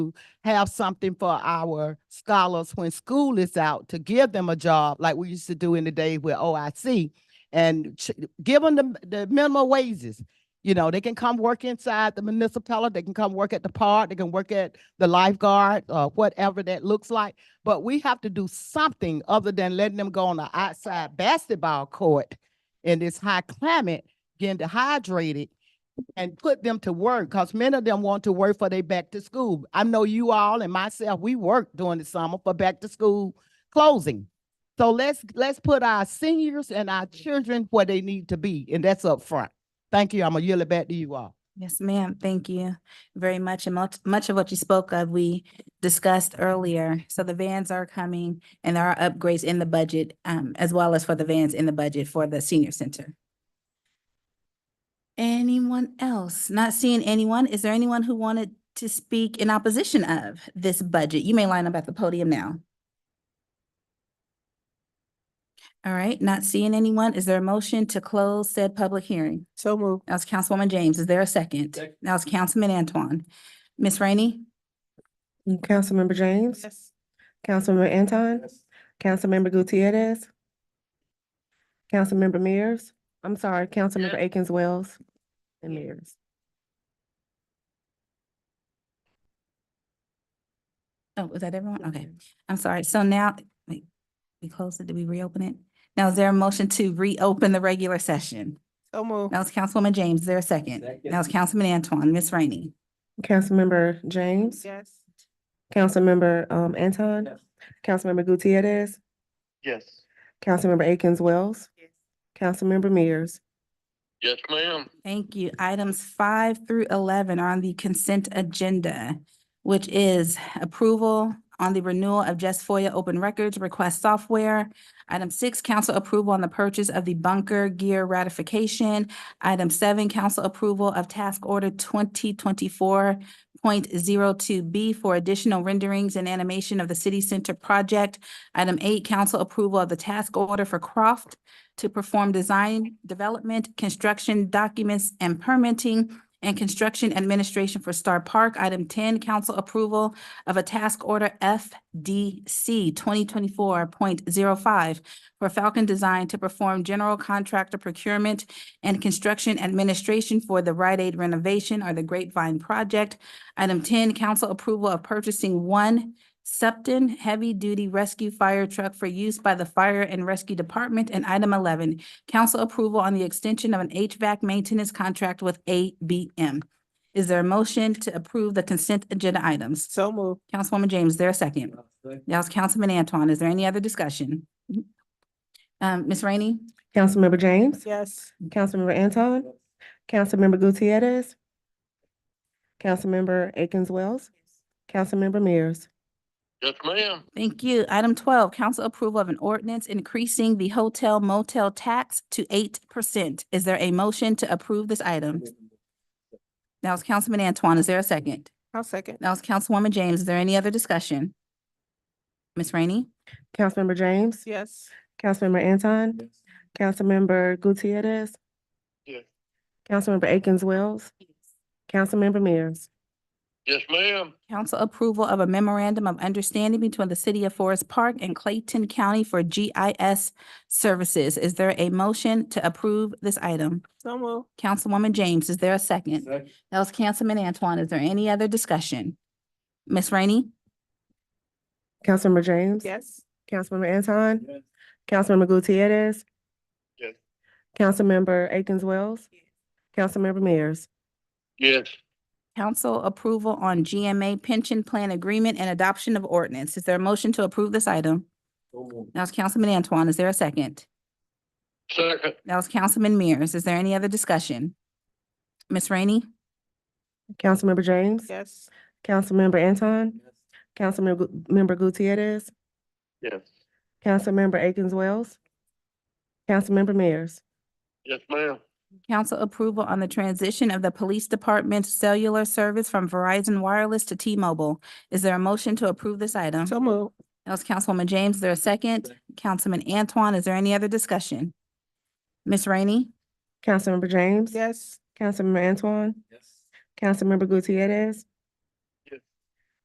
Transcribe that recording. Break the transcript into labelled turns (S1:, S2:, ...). S1: have something for our scholars when school is out to give them a job like we used to do in the day with OIC and ch- give them the, the minimum wages. You know, they can come work inside the municipality, they can come work at the park, they can work at the lifeguard or whatever that looks like. But we have to do something other than letting them go on the outside basketball court in this high climate, getting dehydrated and put them to work because many of them want to work for they back to school. I know you all and myself, we work during the summer for back to school closing. So let's let's put our seniors and our children where they need to be, and that's up front. Thank you. I'm gonna yield it back to you all.
S2: Yes, ma'am. Thank you very much. And much, much of what you spoke of, we discussed earlier. So the vans are coming and there are upgrades in the budget, um, as well as for the vans in the budget for the senior center. Anyone else? Not seeing anyone. Is there anyone who wanted to speak in opposition of this budget? You may line up at the podium now. All right, not seeing anyone. Is there a motion to close said public hearing?
S3: So moved.
S2: That was Councilwoman James. Is there a second?
S4: Second.
S2: That was Councilman Antoine. Miss Rainey?
S3: Councilmember James. Councilmember Anton. Councilmember Gutierrez. Councilmember Mears. I'm sorry, Councilmember Akins Wells and Mears.
S2: Oh, was that everyone? Okay, I'm sorry. So now, wait, we closed it. Did we reopen it? Now, is there a motion to reopen the regular session?
S3: So moved.
S2: That was Councilwoman James. Is there a second? That was Councilman Antoine. Miss Rainey?
S3: Councilmember James.
S1: Yes.
S3: Councilmember um Anton.
S4: Yes.
S3: Councilmember Gutierrez.
S4: Yes.
S3: Councilmember Akins Wells. Councilmember Mears.
S4: Yes, ma'am.
S2: Thank you. Items five through eleven are on the consent agenda, which is approval on the renewal of Just FOIA Open Records Request Software. Item six, council approval on the purchase of the bunker gear ratification. Item seven, council approval of task order twenty twenty-four point zero two B for additional renderings and animation of the city center project. Item eight, council approval of the task order for Croft to perform design, development, construction documents and permitting and construction administration for Star Park. Item ten, council approval of a task order FDC twenty twenty-four point zero five for Falcon Design to perform general contractor procurement and construction administration for the Rite Aid renovation or the Grapevine project. Item ten, council approval of purchasing one Septon Heavy Duty Rescue Fire Truck for use by the Fire and Rescue Department. And item eleven, council approval on the extension of an HVAC maintenance contract with ABM. Is there a motion to approve the consent agenda items?
S3: So moved.
S2: Councilwoman James, is there a second? That was Councilman Antoine. Is there any other discussion? Um, Ms. Rainey?
S3: Councilmember James.
S1: Yes.
S3: Councilmember Anton. Councilmember Gutierrez. Councilmember Akins Wells. Councilmember Mears.
S4: Yes, ma'am.
S2: Thank you. Item twelve, council approval of an ordinance increasing the hotel motel tax to eight percent. Is there a motion to approve this item? That was Councilman Antoine. Is there a second?
S3: I'll second.
S2: That was Councilwoman James. Is there any other discussion? Ms. Rainey?
S3: Councilmember James.
S1: Yes.
S3: Councilmember Anton. Councilmember Gutierrez.
S4: Yes.
S3: Councilmember Akins Wells. Councilmember Mears.
S4: Yes, ma'am.
S2: Council approval of a memorandum of understanding between the city of Forest Park and Clayton County for GIS services. Is there a motion to approve this item?
S3: So moved.
S2: Councilwoman James, is there a second? That was Councilman Antoine. Is there any other discussion? Ms. Rainey?
S3: Councilmember James.
S1: Yes.
S3: Councilmember Anton.
S4: Yes.
S3: Councilmember Gutierrez.
S4: Yes.
S3: Councilmember Akins Wells. Councilmember Mears.
S4: Yes,
S2: Council approval on GMA pension plan agreement and adoption of ordinance. Is there a motion to approve this item? That was Councilman Antoine. Is there a second?
S4: second.
S2: That was Councilman Mears. Is there any other discussion? Ms. Rainey?
S3: Councilmember James.
S1: Yes.
S3: Councilmember Anton. Councilmember Gu- member Gutierrez.
S4: Yes.
S3: Councilmember Akins Wells. Councilmember Mears.
S4: Yes, ma'am.
S2: Council approval on the transition of the police department's cellular service from Verizon Wireless to T-Mobile. Is there a motion to approve this item? That
S3: moved.
S2: was Councilwoman James. Is there a second? Councilman Antoine, is there any other discussion? Ms. Rainey?
S3: Councilmember James.
S1: Yes.
S3: Councilmember Antoine.
S4: Yes.
S3: Councilmember Gutierrez.